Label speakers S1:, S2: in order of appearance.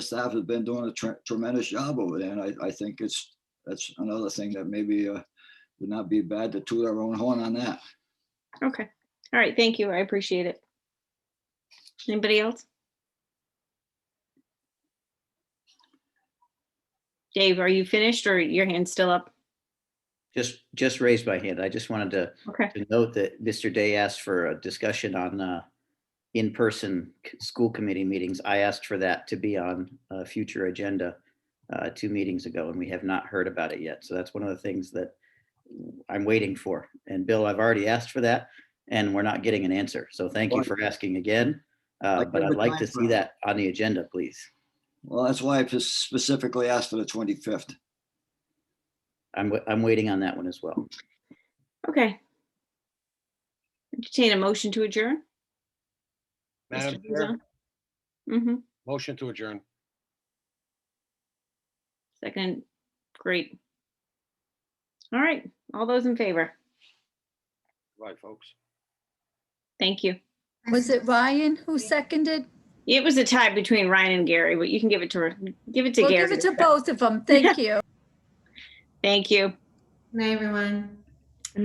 S1: staff has been doing a tre- tremendous job over there, and I, I think it's, that's another thing that maybe uh, would not be bad to toot our own horn on that.
S2: Okay, all right, thank you, I appreciate it. Anybody else? Dave, are you finished or your hand's still up?
S3: Just, just raised my hand. I just wanted to,
S2: Okay,
S3: to note that Mr. Day asked for a discussion on, uh, in-person c- school committee meetings. I asked for that to be on a future agenda, uh, two meetings ago, and we have not heard about it yet. So that's one of the things that I'm waiting for. And Bill, I've already asked for that, and we're not getting an answer. So thank you
S1: Right.
S3: for asking again. Uh,
S1: Like
S3: but I'd
S1: every
S3: like
S1: time
S3: to
S1: for-
S3: see that on the agenda, please.
S1: Well, that's why I specifically asked for the 25th.
S3: I'm, wa- I'm waiting on that one as well.
S2: okay. Entertain a motion to adjourn?
S4: Madam Chair,
S2: Mm-hmm,
S4: motion to adjourn.
S2: second, great. All right, all those in favor,
S4: Right, folks.
S2: thank you.
S5: Was it Ryan who seconded?
S2: It was a tie between Ryan and Gary, but you can give it to, give it to
S5: We'll
S2: Gary.
S5: give it to both of them. Thank you.
S2: Thank you.
S6: Good night, everyone.